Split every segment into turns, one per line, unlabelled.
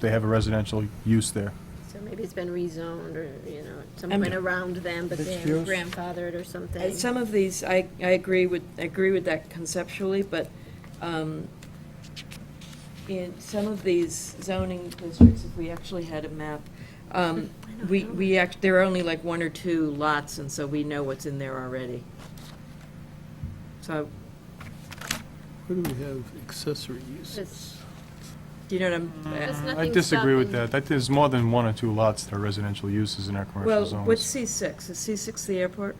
they have a residential use there.
So maybe it's been rezoned or, you know, at some
And-
point around them, but they
Mixed
were
use?
grandfathered or
And
something.
Some of these, I, I agree with, I agree with that conceptually, but um, in some of these zoning districts, if we actually had a map, um,
I don't
we,
know.
we act, there are only like one or two lots, and so we know what's in there already. So,
Where do we have accessory uses?
do you know what I'm?
There's
uh,
I
nothing
disagree with
stopping-
that. That there's more than one or two lots that are residential uses in our commercial
Well,
zones.
what's C six? Is C six the airport?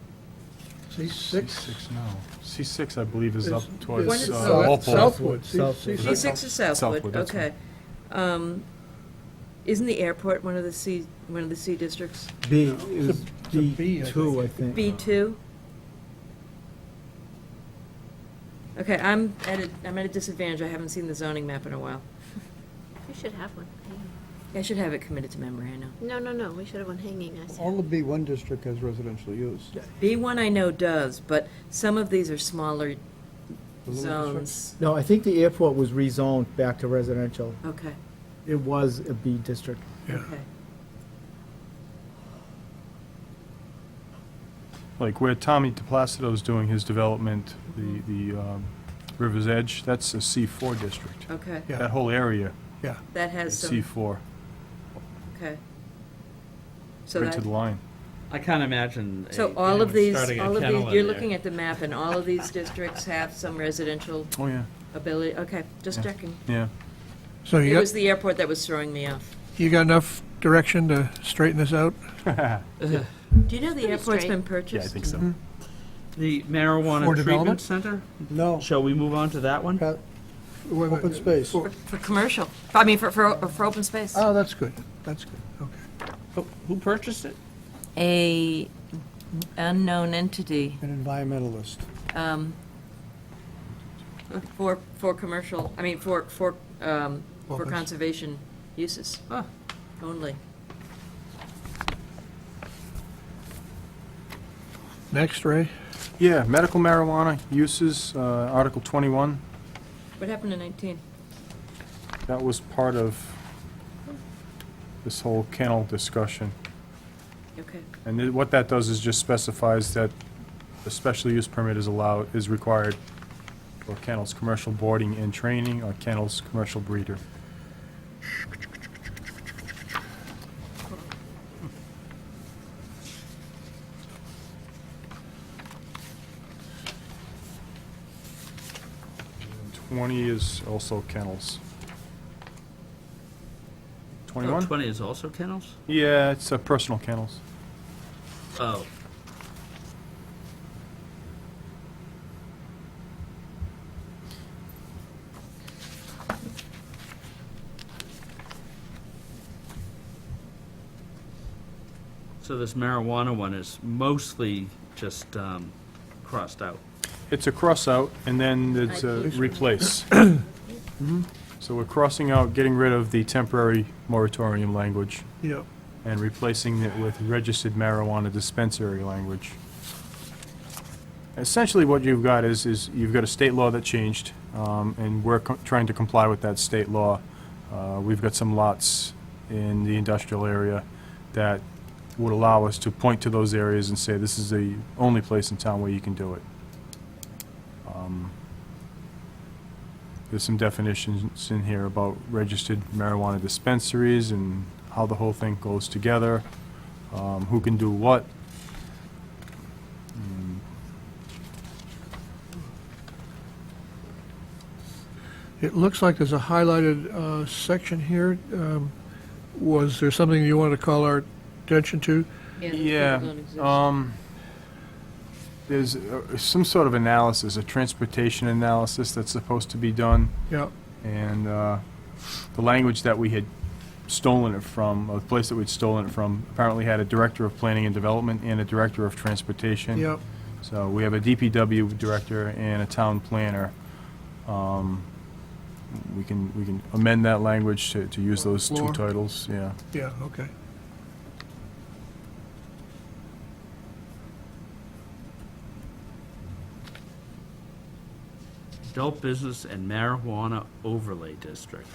C six?
C6, no. C6, I believe, is up
Is-
towards.
One is-
uh,
No,
Oh, that's
Southwood.
Southwood. C-
Southwood.
C
C
Is
six.
that
six is
South- Southwood,
Southwood,
that's
okay. Um, Isn't the airport one of the C, one of the C districts?
B
It's
is
a- it's a B,
B
I
two, I think.
B two? Okay, I'm at a, I'm at a disadvantage, I haven't seen the zoning map in a while.
We should have one. hanging.
I should have it committed to memory, I know.
No, no, no, we should have one hanging, I see.
All of B one district has residential use.
B one I know does, but some of these are smaller
The little
zones.
No, I think the airport was rezoned back to residential.
Okay,
It was a B district.
Yeah.
okay.
Like where Tommy DePlacido's doing his development, the, the um, River's Edge, that's a C4 district.
Okay,
Yeah.
That whole area
Yeah,
that has
is
some,
C4,
okay. So
right to
that,
the line.
I can't imagine. a-
so all of
anyone
these,
starting a
all of
kennel
these,
in
you're
there.
looking at the map and all of these districts have some residential
Oh, yeah,
ability, okay, just
Yeah.
checking.
yeah.
so
It
you
was
got,
the airport that was throwing me off.
you got enough direction to straighten this out?
Do you know the
Pretty
airport's
straight.
been
Yeah, I
purchased?
think so.
The
For
marijuana
development?
treatment center?
No,
Shall we move on to that one?
Pat,
Wait a
open
minute.
space.
For, for commercial, I mean, for, for, for open space.
Oh, that's good, that's good, okay.
Who- Oh, Who purchased it?
A unknown entity,
An environmentalist.
um, for, for commercial, I mean, for, for, um, for
Office.
conservation uses
Ah.
Huh.
only.
Next, Ray?
Yeah, medical marijuana uses, uh, Article 21,
What happened in nineteen?
that was part of this whole kennel discussion.
Okay,
And it- what that does is just specifies that a special use permit is allowed, is required for kennels, commercial boarding and training, or kennels, commercial breeder. And Twenty is also kennels.
Oh,
Twenty-one?
Twenty is also kennels?
Yeah, it's uh, personal kennels.
Oh. So this marijuana one is mostly just um, crossed out.
It's a cross-out, and then it's a replace.
Replace.
Mm-hmm. So we're crossing out, getting rid of the temporary moratorium language,
Yeah.
and replacing it with registered marijuana dispensary language. Essentially, what you've got is, is you've got a state law that changed, um, and we're co- trying to comply with that state law. Uh, We've got some lots in the industrial area that would allow us to point to those areas and say, this is the only place in town where you can do it. Um, There's some definitions in here about registered marijuana dispensaries and how the whole thing goes together, um, who can do what. Mm,
It looks like there's a highlighted uh, section here. Um, Was there something you wanted to call our attention to?
Yeah, um, there's uh, some sort of analysis, a transportation analysis that's supposed to be done.
Yeah,
And uh, the language that we had stolen it from, or the place that we'd stolen it from, apparently had a director of planning and development and a director of transportation.
yeah.
So we have a DPW director and a town planner. Um, We can, we can amend that language to, to use those two
Floor.
titles, yeah.
Yeah, okay.
Adult business and marijuana overlay district.